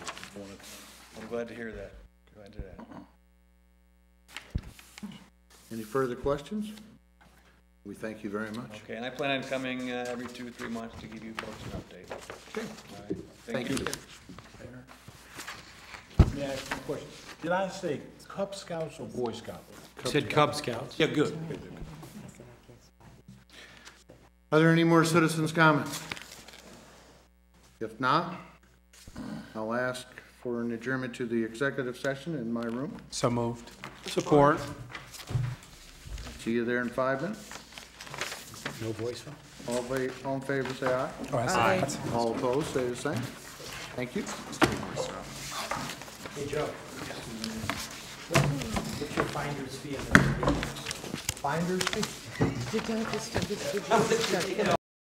glad to hear that. Glad to hear that. Any further questions? We thank you very much. Okay, and I plan on coming uh, every two, three months to give you folks an update. Okay, All right? thank you. May I ask you a question? Did I say Cub Scouts or Boy Scouts? Said Cub Scouts. Yeah, good. Are there any more citizens' comments? If not, I'll ask for an adjournment to the executive session in my room. So moved. Support. See you there in five minutes. No voice? Oh, All fa- all in favor, say aye. Aye. All opposed, say the same. Thank you. Hey, Joe. What's your finder's fee on the? Finder's fee? Did I just, did you just-